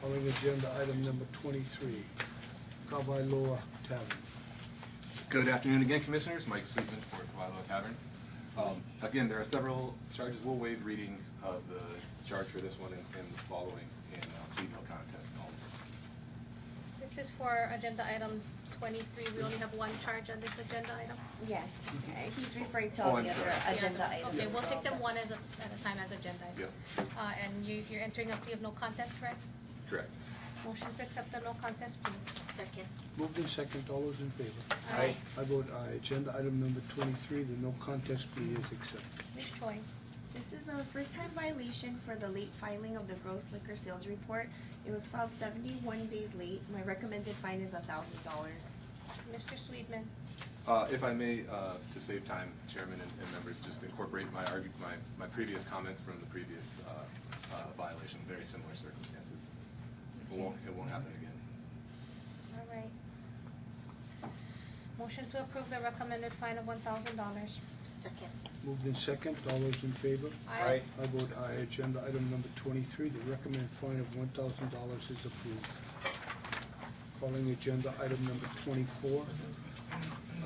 calling agenda item number twenty-three, Kawai Loa Tavern. Good afternoon again, Commissioners. Mike Sweetman for Kawailoa Tavern. Um, Again, there are several charges. We'll waive reading of the charge for this one and and the following in uh, plea no contest. only. This is for agenda item twenty-three, we only have one charge on this agenda item. Yes, okay, he's referring to Oh, all I'm the other sorry. agenda Yeah, items. Okay, we'll take them so- one as a, at a time as agenda items. Uh, and you, you're entering a plea of no contest, correct? Correct. Motion to accept the no contest plea. Second. Moved in second, all those in favor? Aye. I vote aye. Agenda item number twenty-three, the no contest plea is accepted. Ms. Choi, This is a first-time violation for the late filing of the gross liquor sales report. It was filed seventy-one days late. My recommended fine is a thousand dollars. Mr. Sweetman, Uh, If I may, uh, to save time, Chairman and and members, just incorporate my argu- my my previous comments from the previous uh, uh, violation, very similar circumstances. It won't It won't happen again. all right. Motion to approve the recommended fine of one thousand dollars. Second. Moved in second, all those in favor? Aye. Aye. I vote aye. Agenda item number twenty-three, the recommended fine of one thousand dollars is approved. Calling agenda item number twenty-four,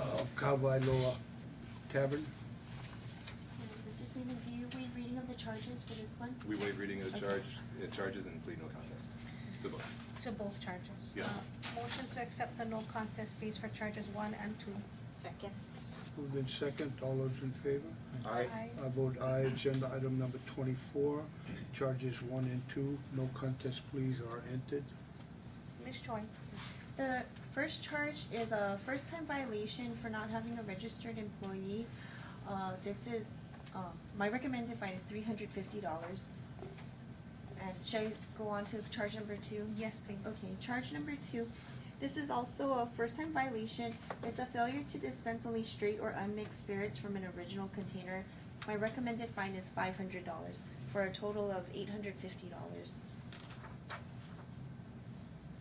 uh, Kawai Loa Tavern. Mr. Sweetman, do you waive reading of the charges for this one? We waive reading of the Okay. charge, uh, charges and plea no contest. Good luck. To both charges. Yeah. Uh, Motion to accept the no contest pleas for charges one and two. Second. Moved in second, all those in favor? Aye. I vote aye. Agenda item number twenty-four, charges one and two, no contest pleas are entered. Ms. Choi, The first charge is a first-time violation for not having a registered employee. Uh, this is, um, my recommended fine is three hundred fifty dollars. And shall I go on to charge number two? yes, please. Okay, charge number two. This is also a first-time violation. It's a failure to dispense only straight or unmixed spirits from an original container. My recommended fine is five hundred dollars for a total of eight hundred fifty dollars.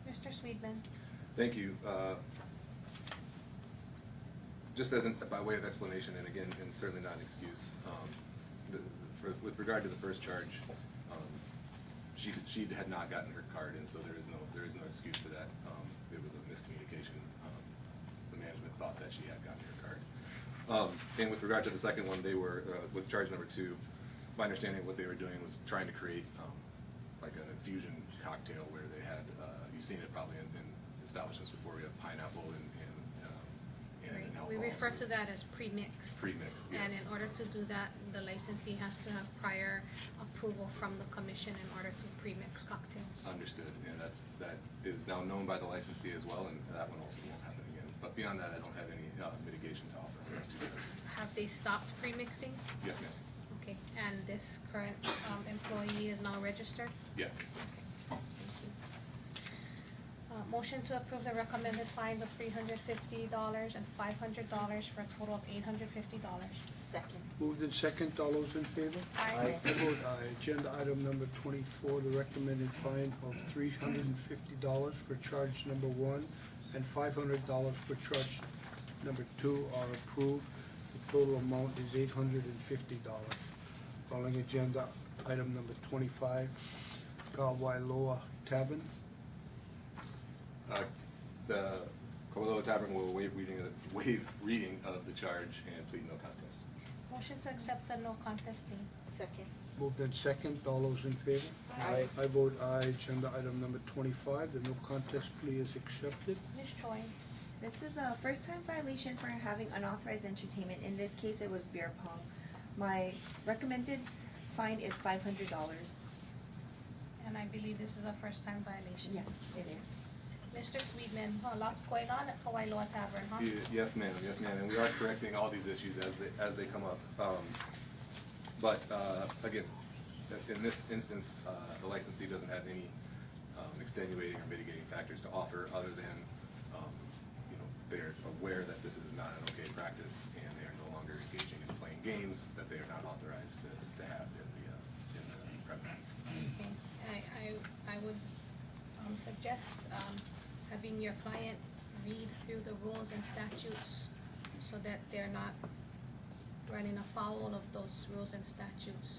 Mr. Sweetman, Thank you. Uh, Just as, an- by way of explanation, and again, and certainly not an excuse, um, the- for- with regard to the first charge, um, she, she had not gotten her card, and so there is no, there is no excuse for that. Um, It was a miscommunication. Um, The management thought that she had gotten her card. Um, And with regard to the second one, they were, uh, with charge number two, my understanding of what they were doing was trying to create um, like an infusion cocktail where they had, uh, you've seen it probably in, in establishments before, we have pineapple and, and, um, and an alcohol. we refer so to that as pre-mixed. Pre-mixed, And yes. in order to do that, the licensee has to have prior approval from the commission in order to pre-mix cocktails. Understood, and that's, that is now known by the licensee as well, and that one also won't happen again. But beyond that, I don't have any, uh, mitigation to offer. Have they stopped pre-mixing? Yes, ma'am, Okay, and this current um, employee is now registered? yes. Okay, thank you. Uh, motion to approve the recommended fines of three hundred fifty dollars and five hundred dollars for a total of eight hundred fifty dollars. Second. Moved in second, all those in favor? Aye. I vote aye. Agenda item number twenty-four, the recommended fine of three hundred and fifty dollars for charge number one and five hundred dollars for charge number two are approved. The total amount is eight hundred and fifty dollars. Calling agenda item number twenty-five, Kawailoa Tavern. Uh, The Kololo Tavern will waive reading, of the- waive reading of the charge and plead no contest. Motion to accept the no contest plea. Second. Moved in second, all those in favor? Aye. I vote aye. Agenda item number twenty-five, the no contest plea is accepted. Ms. Choi, This is a first-time violation for having unauthorized entertainment. In this case, it was beer pong. My recommended fine is five hundred dollars. and I believe this is a first-time violation. Yes, it is. Mr. Sweetman, a lot's going on at Hawaii Loa Tavern, huh? Ye- Yes, ma'am, yes, ma'am, and we are correcting all these issues as they, as they come up. Um, But, uh, again, in this instance, uh, the licensee doesn't have any um, extenuating or mitigating factors to offer other than, um, you know, they're aware that this is not an okay practice and they are no longer engaging in playing games that they are not authorized to, to have in the, uh, in the premises. Okay, I, I, I would, um, suggest, um, having your client read through the rules and statutes so that they're not running afoul of those rules and statutes